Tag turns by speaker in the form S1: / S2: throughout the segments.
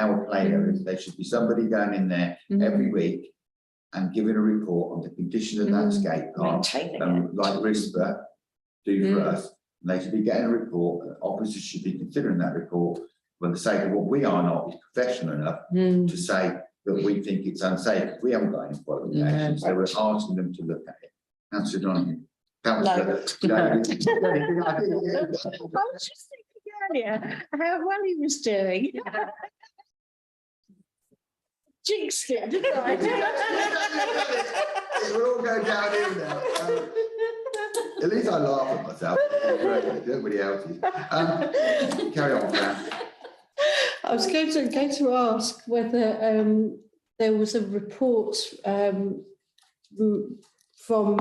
S1: our players, there should be somebody going in there
S2: Mm.
S1: every week and giving a report on the condition of that
S2: Mm.
S1: skate park.
S2: Maintaining it.
S1: um, like RISPA do for
S2: Mm.
S1: us, and they should be getting a report, and officers should be considering that report. For the sake of what we are not professional enough
S2: Mm.
S1: to say that we think it's unsafe, we haven't got any following actions, so we're asking them to look at it. Councillor Donoghue. Councillor.
S2: I was just thinking earlier how well he was doing. Jinxed it, didn't I?
S1: We'll all go down here now. Um, At least I laugh at myself, everybody else is. Um, Carry on, Fran.
S3: I was going to, going to ask whether um, there was a report um, m- from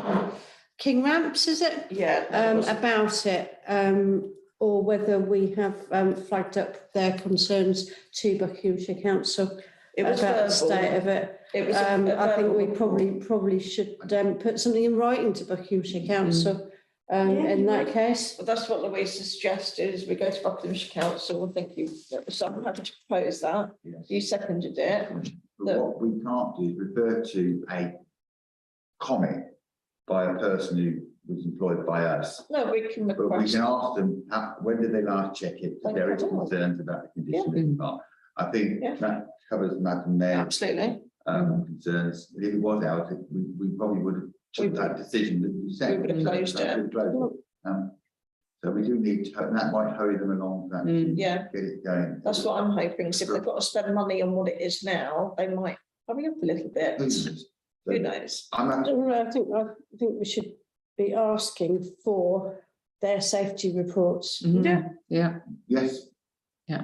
S3: King Ramps, is it? Um,
S4: Yeah.
S3: about it, um, or whether we have um, flagged up their concerns to Buckinghamshire Council
S4: It
S3: about
S4: was
S3: the state
S4: verbal.
S3: of it.
S4: It was a-
S3: Um,
S4: a
S3: I think we
S4: verbal
S3: probably, probably should um, put something in writing to Buckinghamshire Council um,
S4: Mm-hmm. Yeah,
S3: in
S4: you
S3: that
S4: might.
S3: case.
S4: Well, that's what Louise has suggested, is we go to Buckinghamshire Council, I think you, someone had to propose that,
S1: Yes.
S4: you seconded it.
S1: But what we can't do is refer to a comment by a person who was employed by us.
S4: No, we can
S1: But we
S4: request,
S1: can ask them, how- when did they last check it? If there is concerns about the condition of the park. I think
S4: Yeah.
S1: that covers Madam Mayor's
S4: absolutely, Mm.
S1: um, concerns. If it was out, we, we probably would have took that decision that you said.
S4: We would have closed it.
S1: We'd have closed it. Um, So we do need to, and that might hurry them along, that,
S2: Mm.
S4: yeah,
S1: get it going.
S4: that's what I'm hoping, is if they've got to spend money on what it is now, they might hurry up a little bit, who
S1: I'm,
S4: knows?
S3: I
S1: not-
S3: don't know, I think, I think we should be asking for their safety reports.
S1: Mm-hmm.
S2: Yeah, yeah.
S1: yes.
S2: Yeah.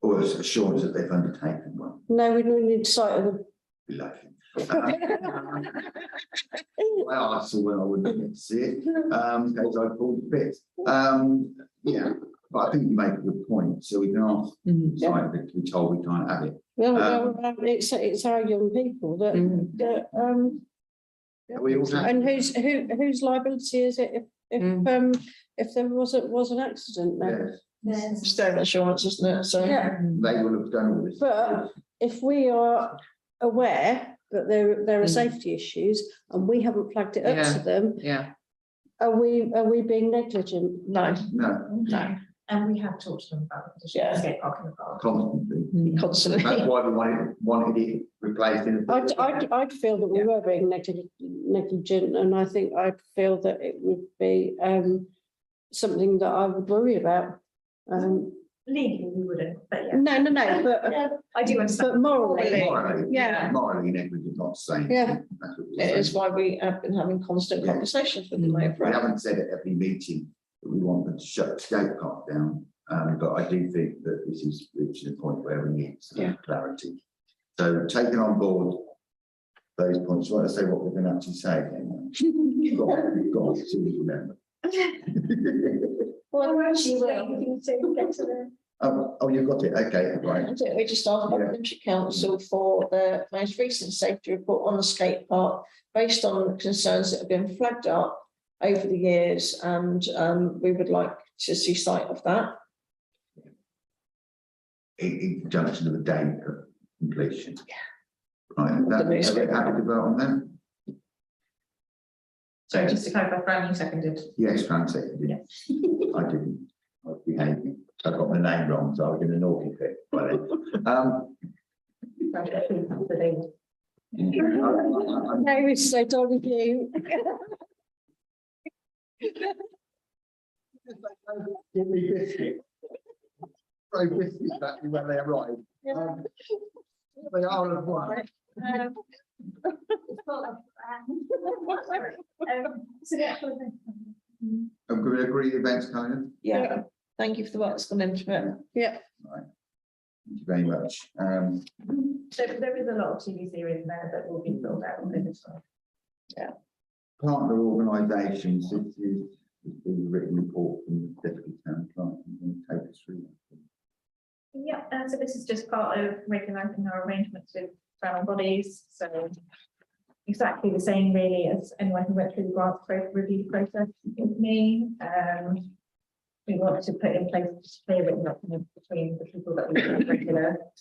S1: Or as assurance that they've undertaken one.
S3: No, we don't need sight of them.
S1: be lucky. Well, I saw when I wouldn't get to see it, um, because I pulled the bit. Um, yeah, but I think you make a good point, so we can ask,
S2: Mhm.
S1: like, that we told we can't have it.
S3: No,
S1: Um,
S3: no, um, it's, it's our young people that,
S2: Mm.
S3: that, um,
S1: We all have. Mm.
S3: and whose, who, whose liability is it if, if, um, if there was, a- was an accident then?
S1: Yes,
S4: It's their insurance, isn't it, so.
S3: Yeah,
S1: They will have done all this.
S3: but if we are aware that there, there are
S2: Mm.
S3: safety issues and we haven't flagged it up
S2: Yeah.
S3: to them,
S2: Yeah.
S3: are we, are we being negligent?
S4: No,
S1: No,
S4: no,
S5: And we have talked to them about the condition of
S4: Yeah.
S5: skate park in the past.
S1: constantly.
S2: Mm.
S4: constantly,
S1: That's why we wanted, wanted it replaced in.
S3: I'd, I'd, I'd feel that we were being negli- negligent and I think I'd feel that it would be, um, something that I would worry about. Um,
S5: Legally, we wouldn't, but yeah.
S3: no, no, no, but,
S5: Yeah, I do understand.
S3: but morally,
S4: Morally.
S1: Morally.
S3: yeah.
S1: Morally negligent, not saying.
S3: Yeah.
S1: That's what we're
S4: it
S1: saying.
S4: is why we have been having constant
S1: Yeah.
S4: conversations with them
S1: We
S4: over it.
S1: haven't said at every meeting that we want them to shut the skate park down, um, but I do think that this is reaching a point where we need
S4: Yeah.
S1: some clarity. So taking on board those points, you want to say what we're going to actually say then? You've got, you've got to remember.
S4: Well, actually,
S1: Oh, oh, you've got it, okay, right.
S4: I think we just asked
S1: Yeah.
S4: Buckinghamshire Council for their most recent safety report on the skate park based on concerns that have been flagged up over the years and um we would like to see sight of that.
S1: In, in conjunction with the date of completion. Right, and that,
S4: The next
S1: are we
S4: bit.
S1: happy to vote on that?
S5: Sorry, just to clarify, Fran, you seconded.
S1: Yes, Fran seconded. I didn't, I was behaving, I got my name wrong, so I was in an awful fit by then. Um,
S3: no, it's so don't you.
S1: Give me biscuit. Throw biscuits at me when they arrive. Um, They are as one. Um, Can we agree the events, Conan?
S4: Yeah, thank you for the work that's gone into it.
S1: Thank you very much. Um,
S5: So there is a lot of TVC in there that will be filled out within this one.
S1: partner organisations, this is, this is a written report from the deputy town clerk, and take us through. that.
S5: Yeah, uh, so this is just part of regulating our arrangements with federal bodies, so exactly the same really as anyone who went through the grant pro- review process with me. Um, we we want to put in place, clear it up between the people that we regular